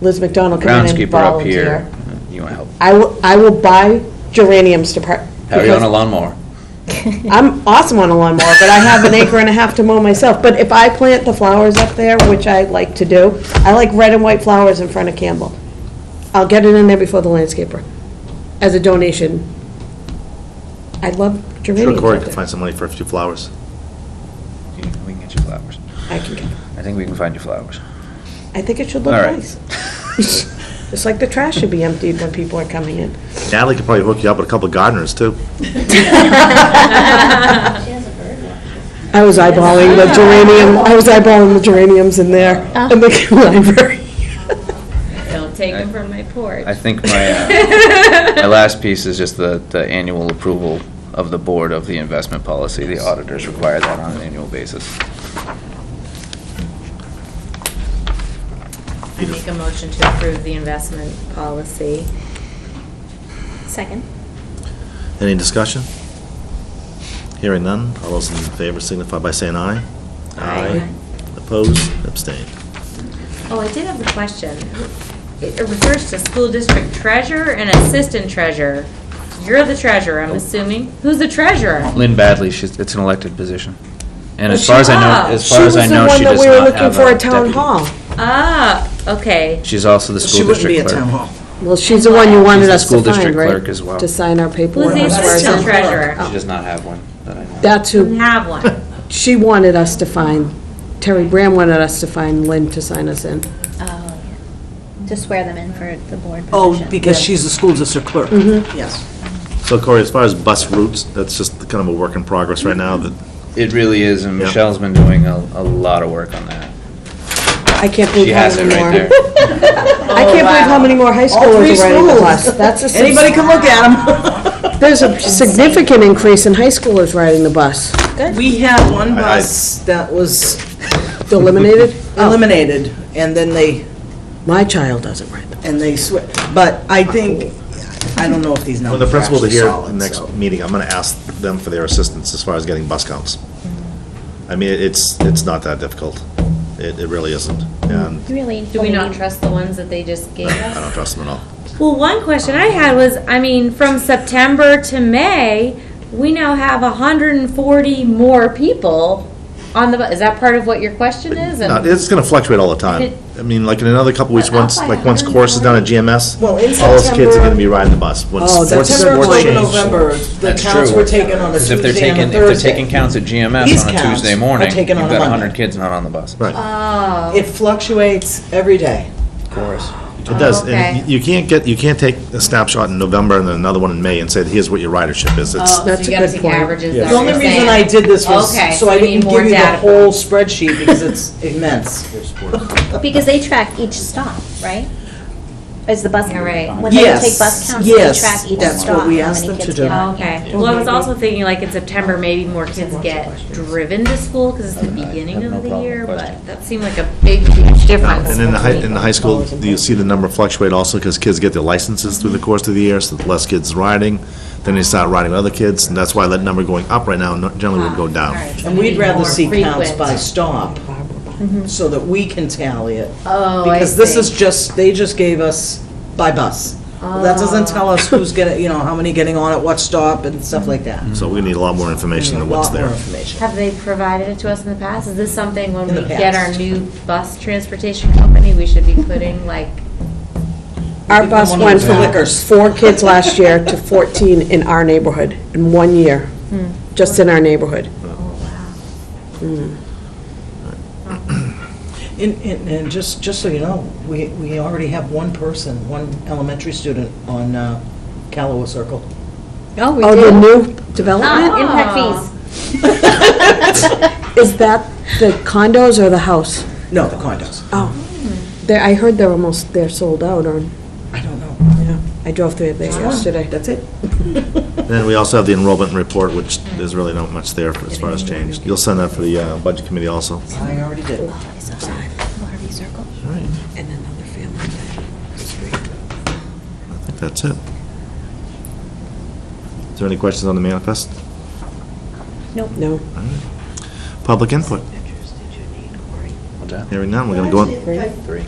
Liz McDonald come in and groundskeeper up here. volunteer. You want to help? I will, I will buy geraniums to part. How are you on a lawnmower? I'm awesome on a lawnmower, but I have an acre and a half to mow myself. But if I plant the flowers up there, which I like to do, I like red and white flowers in front of Campbell. I'll get it in there before the landscaper, as a donation. I love Sure geraniums Corey up can there. find some money for a few flowers. We can get you flowers. I can, get- I think we can find you flowers. I think it should look All right. nice. It's like the trash should be emptied when people are coming in. Natalie could probably hook you up with a couple of gardeners, too. I was eyeballing the geranium, I was eyeballing the geraniums in there, Oh. in the library. Don't take I- them from my porch. I think my, uh, my last piece is just the, the annual approval of the board of the investment policy. The auditors require that on an annual basis. I make a motion to approve the investment policy. Second. Any discussion? Hearing none, all those in favor signify by saying aye. Aye. Opposed, abstained. Oh, I did have a question. It refers to school district treasurer and assistant treasurer. You're the treasurer, I'm assuming. Who's the treasurer? Lynn Badley, she's, it's an elected position. And Oh, as she- far as I know, ah, as far as I know, she does She was the one that we not were looking have for a at town hall. deputy. Ah, okay. She's also the She school wouldn't be district at town clerk. hall. Well, she's the one you wanted the us school to district find, right? clerk as well. To sign our Who's paperwork. the Well, that's assistant town clerk. treasurer? She does not have one that I know. of. That's Doesn't Mm-hmm. who, have one. she wanted us to find, Terry Graham wanted us to find Lynn to sign us in. Oh, yeah. To swear them in for the board Oh, position. because Mm-hmm. she's the school district clerk. Yes. So Corey, as far as bus routes, that's just kind of a work in progress right now, that It really is, and Yeah. Michelle's been doing a, a lot of work on that. I can't She believe how has it many more. right there. I can't believe how many more high All three schoolers are riding the bus. schools. That's a, subs- Anybody can look at there's a significant increase in high schoolers riding the bus. them. We had one I- I- bus that was Eliminated? Oh. eliminated, and then they, My child doesn't ride the and they switched. But I think, I don't know if these when numbers the are principals are actually here solid, next so. meeting, I'm gonna ask them for their assistance as far as getting bus counts. I mean, it's, it's not that difficult. It, it really isn't. And You Really? Do we not believe- trust the ones that they just gave I us? don't trust them at all. Well, one question I had was, I mean, from September to May, we now have hundred and forty more people on the, bu- is that part of what your question is? Uh, And It's gonna fluctuate all the time. It- I mean, like in another couple weeks, But up once, by like once course is down at GMS, Well, all in those kids are September- gonna be riding the bus. Once- Oh, once September, sports October, change- November, the That's counts true. were taken on a Because if they're Tuesday and taking, a if they're taking Thursday. counts at These GMS on a counts Tuesday are morning, you've taken on a got Monday. 100 kids not on the bus. Right, Oh, It fluctuates every day. Of course. it does. okay. And y- you can't get, you can't take a snapshot in November and then another one in May and say, here's what your ridership is. It's, oh, so That's you a gotta good take point. averages, Yes. that's The what only you're reason I saying. did this was Okay, so I we need didn't more give you the data. whole spreadsheet because it's immense. Because they track each stop, right? Is the bus. Yeah, right. When they Yes, take bus counts, they yes, track each stop. that's what how we asked many them to kids do. get on. Oh, Okay, well, I was also thinking like in September, maybe more kids get driven to school because it's the beginning no of the problem year, with but that seemed like a big, huge difference. And in the high, in the high school, you see the number fluctuate also because kids get their licenses through the course of the year, so less kids riding. Then they start riding with other kids, and that's why that number going up right now no- generally would go All down. right, so And we we'd need rather more see frequent. counts Mm-hmm. by stop, so that we can tally it. Oh, I Because this is see. just, they just gave us by bus. Well, That Oh. doesn't tell us who's getting, you know, how many getting on at what stop and stuff like that. Mm-hmm. So we need a lot more information A than what's lot more there. information. Have they provided it to us in the past? Is this something when In the we get our past. new bus transportation company, we should be putting like, Our Become bus one of went those from lickers. four kids last year to 14 in our neighborhood, in one year, just in our neighborhood. And, and, and just, just so you know, we, we already have one person, one elementary student on uh, Callaway Circle. Oh, we Oh, the new development? Impact fees. Is that the condos or the house? No, the condos. Oh, there, I heard they're almost, they're sold out, Ah, or, I don't know. yeah, I drove through there yesterday. That's it. And Then we also have the enrollment report, which there's really not much there for- as far as change. You'll send that for the uh, budget committee also. I already did. Harvey Circle. And another family. I think that's it. Is there any questions on the manifest? No, Public input? What's that? Hearing none, we're gonna go on. Three.